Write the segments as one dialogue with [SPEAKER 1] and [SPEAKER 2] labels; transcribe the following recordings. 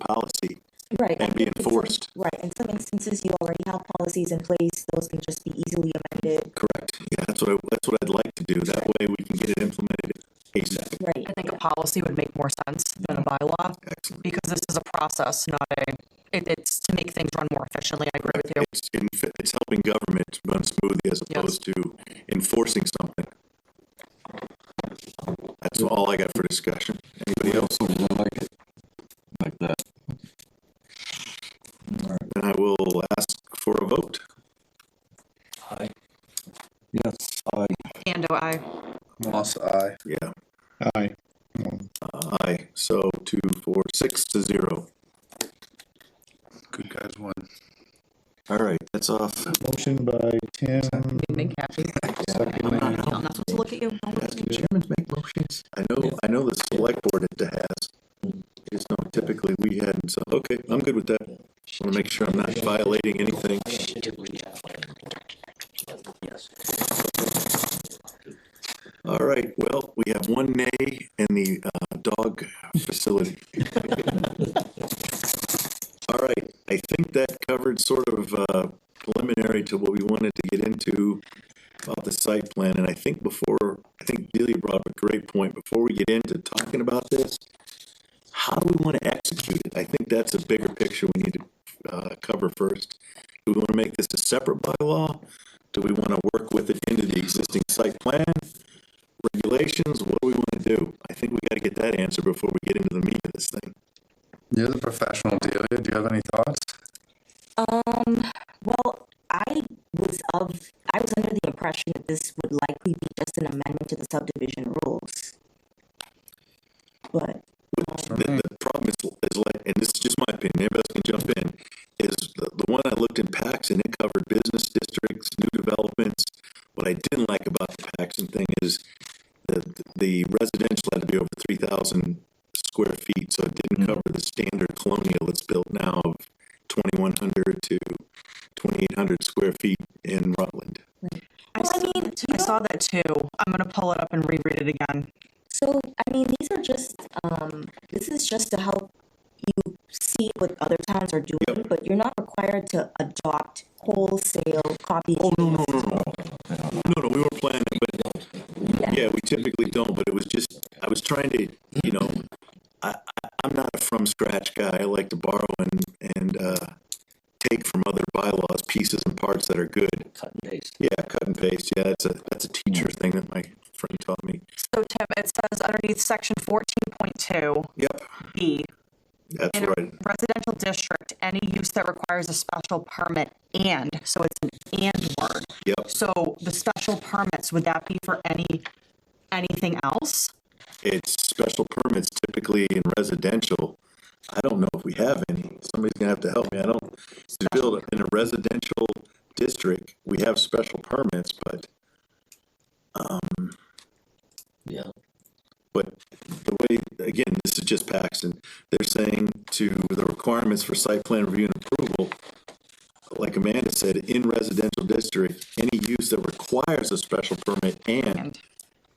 [SPEAKER 1] policy
[SPEAKER 2] Right. I
[SPEAKER 1] and be
[SPEAKER 2] think in some-
[SPEAKER 1] enforced.
[SPEAKER 2] Right, in some instances, you already have policies in place, those can just be easily amended,
[SPEAKER 1] Correct. Yeah, that's what, I- that's what I'd like to do. That way we can get it implemented ASAP.
[SPEAKER 2] right?
[SPEAKER 3] I think a policy would make more sense than a bylaw,
[SPEAKER 1] Excellent.
[SPEAKER 3] because this is a process, not a, it, it's to make things run more efficiently, I agree with you.
[SPEAKER 1] It's, in fa- it's helping government run smoothly as
[SPEAKER 3] Yes.
[SPEAKER 1] opposed to enforcing something. That's all I got for discussion. Anybody else?
[SPEAKER 4] like it, like that.
[SPEAKER 1] Then I will ask for a vote.
[SPEAKER 4] Yes, I.
[SPEAKER 3] And do I,
[SPEAKER 5] Moss eye.
[SPEAKER 1] Yeah, Uh,
[SPEAKER 6] Aye.
[SPEAKER 1] aye. So two, four, six to zero.
[SPEAKER 5] Good guys won.
[SPEAKER 1] All right, that's off.
[SPEAKER 6] Motion by Tim,
[SPEAKER 3] make happy.
[SPEAKER 6] second,
[SPEAKER 3] I'm not supposed to look at you. Don't look at me.
[SPEAKER 4] Chairman make motions.
[SPEAKER 1] I know, I know the select board it has. It's not typically we hadn't, so, okay, I'm good with that. Just wanna make sure I'm not violating anything. All right, well, we have one nay in the, uh, dog facility. All right, I think that covered sort of, uh, preliminary to what we wanted to get into about the site plan, and I think before, I think Delia brought up a great point, before we get into talking about this, how do we wanna execute it? I think that's a bigger picture we need to, uh, cover first. Do we wanna make this a separate bylaw? Do we wanna work with it into the existing site plan? Regulations, what do we wanna do? I think we gotta get that answer before we get into the meat of this thing.
[SPEAKER 5] You're the professional, Delia. Do you have any thoughts?
[SPEAKER 2] Um, well, I was of, I was under the impression that this would likely be just an amendment to the subdivision rules. But,
[SPEAKER 1] The, the problem is, is like, and this is just my opinion, everybody else can jump in, is the, the one I looked in Paxton, it covered business districts, new developments. What I didn't like about the Paxton thing is the, the residential had to be over three thousand square feet, so it didn't cover the standard colonial that's built now of twenty-one hundred to twenty-eight hundred square feet in Rutland.
[SPEAKER 2] I mean,
[SPEAKER 3] I saw that too. I'm gonna pull it up and reread it again.
[SPEAKER 2] so, I mean, these are just, um, this is just to help you see what other towns are doing, but you're not required to adopt wholesale copy.
[SPEAKER 1] Oh, no, no, no, no. No, no, we were planning, but, yeah, we typically don't, but it was just, I was trying to, you know, I, I, I'm not a from scratch guy. I like to borrow and, and, uh, take from other bylaws, pieces and parts that are good.
[SPEAKER 4] Cut and paste.
[SPEAKER 1] Yeah, cut and paste. Yeah, that's a, that's a teacher thing that my friend taught me.
[SPEAKER 3] So Tim, it says underneath section fourteen point two
[SPEAKER 1] Yep,
[SPEAKER 3] B,
[SPEAKER 1] that's
[SPEAKER 3] in a
[SPEAKER 1] right.
[SPEAKER 3] residential district, any use that requires a special permit and, so it's an and word.
[SPEAKER 1] Yep,
[SPEAKER 3] So the special permits, would that be for any, anything else?
[SPEAKER 1] it's special permits typically in residential. I don't know if we have any. Somebody's gonna have to help me. I don't, to build in a residential district, we have special permits, but, um,
[SPEAKER 4] Yeah.
[SPEAKER 1] But the way, again, this is just Paxton, they're saying to the requirements for site plan review and approval, like Amanda said, in residential district, any use that requires a special permit and,
[SPEAKER 3] And-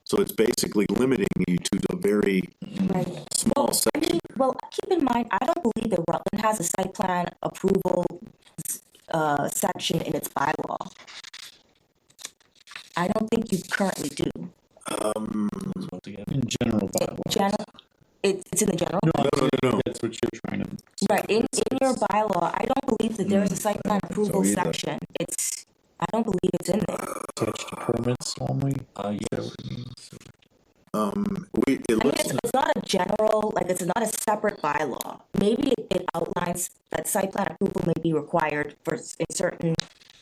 [SPEAKER 1] so it's basically limiting you to the very
[SPEAKER 2] Right.
[SPEAKER 1] small
[SPEAKER 2] I
[SPEAKER 1] section.
[SPEAKER 2] mean, well, keep in mind, I don't believe that Rutland has a site plan approval, uh, section in its bylaw. I don't think you currently do.
[SPEAKER 6] in general bylaw.
[SPEAKER 2] General, it's, it's in the general,
[SPEAKER 1] No, no, no, no,
[SPEAKER 6] That's what you're trying to,
[SPEAKER 2] right, in, in your bylaw, I don't believe that there is a site plan approval section. It's, I don't believe it's in there.
[SPEAKER 6] attach to permits only.
[SPEAKER 4] Uh, yes.
[SPEAKER 1] um, we, it
[SPEAKER 2] I mean,
[SPEAKER 1] looks,
[SPEAKER 2] it's, it's not a general, like, it's not a separate bylaw. Maybe it, it outlines that site plan approval may be required for, s- in certain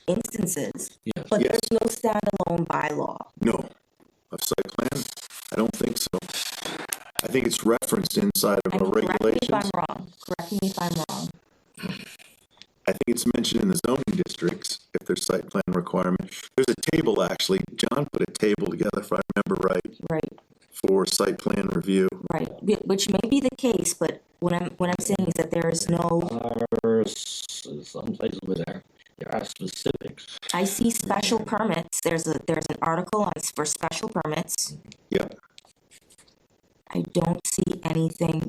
[SPEAKER 2] instances.
[SPEAKER 4] Yes.
[SPEAKER 2] But
[SPEAKER 1] Yes.
[SPEAKER 2] there's no standalone bylaw.
[SPEAKER 1] no, of site plan, I don't think so. I think it's referenced inside
[SPEAKER 2] I
[SPEAKER 1] of
[SPEAKER 2] mean,
[SPEAKER 1] our
[SPEAKER 2] correct me if I'm
[SPEAKER 1] regulations.
[SPEAKER 2] wrong, correct me if I'm wrong.
[SPEAKER 1] I think it's mentioned in the zoning districts, if there's site plan requirement. There's a table, actually, John put a table together, if I remember right,
[SPEAKER 2] Right,
[SPEAKER 1] for site plan review.
[SPEAKER 2] right, Whi- which may be the case, but what I'm, what I'm saying is that there is no,
[SPEAKER 4] Are s- some places where there, there are specifics.
[SPEAKER 2] I see special permits, there's a, there's an article on, s- for special permits.
[SPEAKER 1] Yep,
[SPEAKER 2] I don't see anything